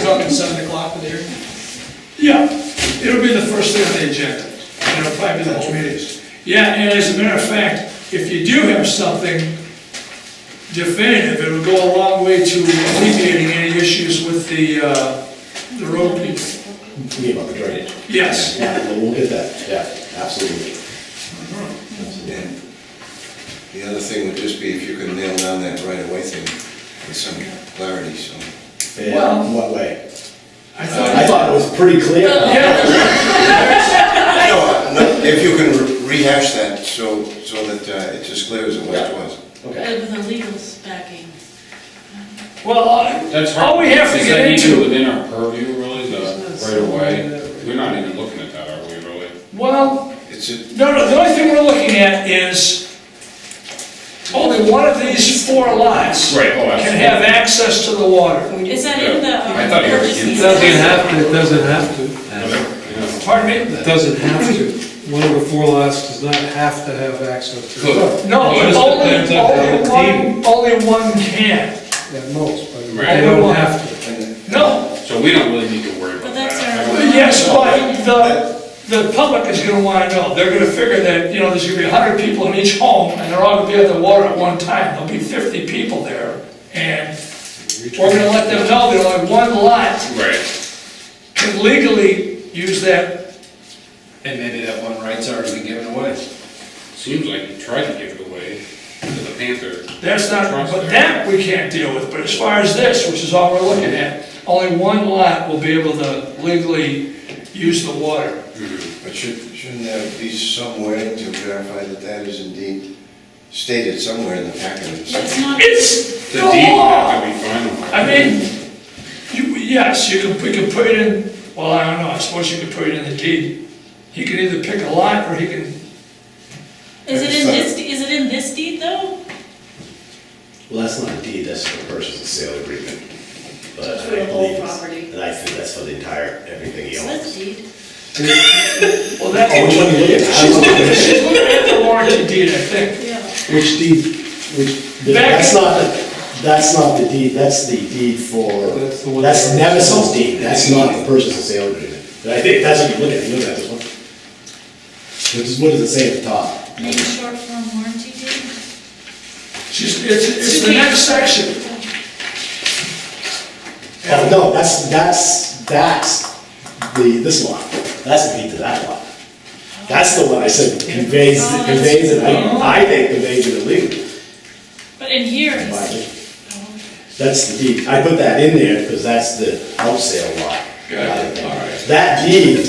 talking seven o'clock with Eric? Yeah, it'll be the first thing on the agenda, and it'll probably be the whole meeting. Yeah, and as a matter of fact, if you do have something definitive, it'll go a long way to alleviating any issues with the, uh, the road people. You mean about the drainage? Yes. Yeah, well, we'll get that, yeah, absolutely. And the other thing would just be if you could nail down that right-of-way thing with some clarity, so. In what way? I I thought, thought it was pretty clear. yeah, No, no, If you can rehash that, so, so that uh, it's as clear as it was- was. Okay. Uh, With the legal backing. well, uh, I- That's all we have to is get that even into, Within our purview, really, the right of way, we're not even looking at that, are we, really? well, It's, a- No, no, the only thing we're looking at is only one of these four lots Right, oh, can have access to the water. Is that in the? um, I thought you were- purchase It It easement? doesn't have to, it doesn't have to. absolutely. Pardon me? It doesn't have to. One of the four lots does not have to have access to it. No, Notice only, the plans up there. only one, only one can. At most, but they Right. don't have to. No, So we don't really need to worry But about that. that's I our- would- yes, but the, the public is gonna wanna know. They're gonna figure that, you know, there's gonna be hundred people in each home, and they're all gonna be at the water at one time. There'll be fifty people there, and we're gonna let them know there's only one lot Right, can legally use that. And maybe that one right's already been given away. seems like you tried to give it away to the Panther. That's not, Trust but there. that we can't deal with, but as far as this, which is all we're looking at, only one lot will be able to legally use the water. but should- shouldn't there be some way to verify that that is indeed stated somewhere in the packet? It's not, It's the The deed would have law! to be final. I mean, you, yes, you can, we can put it in, well, I don't know, I suppose you could put it in the deed. He can either pick a lot or he can, is it in this, is it in this deed though? Well, that's not a deed, that's for purchase and sale agreement. But For I the whole believe, it's- property. and I think that's for the entire, everything he It's owns. this deed. well, that. Oh, which one you look at? I She's don't looking, know. she's looking at the warranty deed, I think. Yeah. Which deed, which, that's not, the- that's not the deed, that's the deed for, That's the one that's that- Nevison's deed, that's not the purchase and sale agreement. And I think that's what you look at, you look at this one. This is, what does it say at the top? Name short form warranty deed? She's, it's, it's the next section. Oh, no, that's, that's, that's the, this lot, that's the deed to that lot. That's the one I said conveys, conveys it, I, I think conveys it illegally. But in here, in my it's- opinion. That's the deed, I put that in there because that's the out sale lot. Got it, all right. That deed,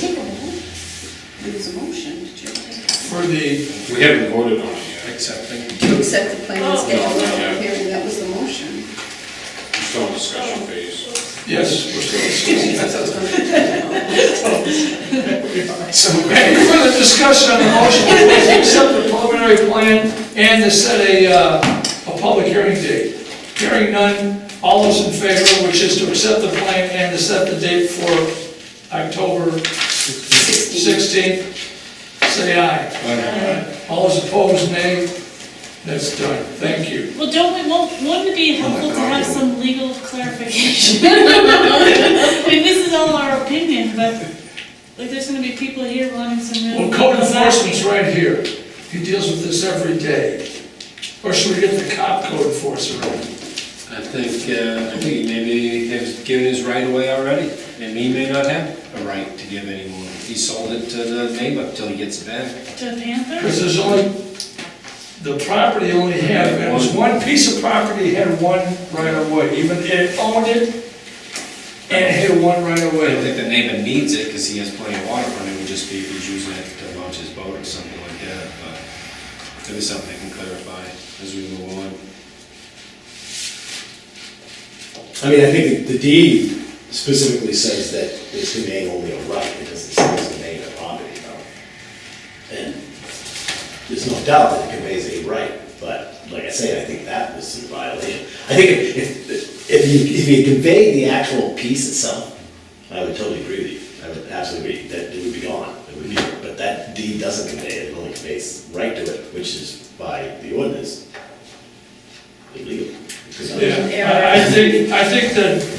For the, We haven't voted on it yet, Accepting. To accept the plan and schedule the Oh. public hearing, that was the motion. we're still in discussion phase. yes, we're still discussing. So, Any further discussion on the motion, please accept the preliminary plan and to set a, uh, a public hearing date. Hearing none, all those in favor, which is to accept the plan and to set the date for October 16th, say aye. All those opposed, nay. That's done, thank you. well, don't we, won't, wouldn't it be Oh helpful to have some legal clarification? I mean, this is all our opinion, but, like, there's gonna be people here wanting some. real Well, code legal enforcement's backing. right here. He deals with this every day. Or should we get the cop code enforcer in? I think, uh, I think he maybe has given his right away already, and he may not have a right to give anymore. He sold it to the neighbor till he gets it back. To Panther? Because there's only, the property only had, it was one piece of property had one right of way, even it owned it, and it had one right of I don't way. think the neighbor needs it, because he has plenty of water, but it would just be if he's using it to launch his boat or something like that, but maybe something they can clarify as we move on. I mean, I think the deed specifically says that it's conveying only a right, it doesn't say it's conveying a property, though. And there's no doubt that it conveys a right, but like I say, I think that was in violation. I think if, if, if you, if you conveyed the actual piece itself, I would totally agree with you, I would absolutely agree, that it would be gone. It would be, but that deed doesn't convey it, it only conveys right to it, which is by the ordinance illegal. Because- Yeah, I I think, I think that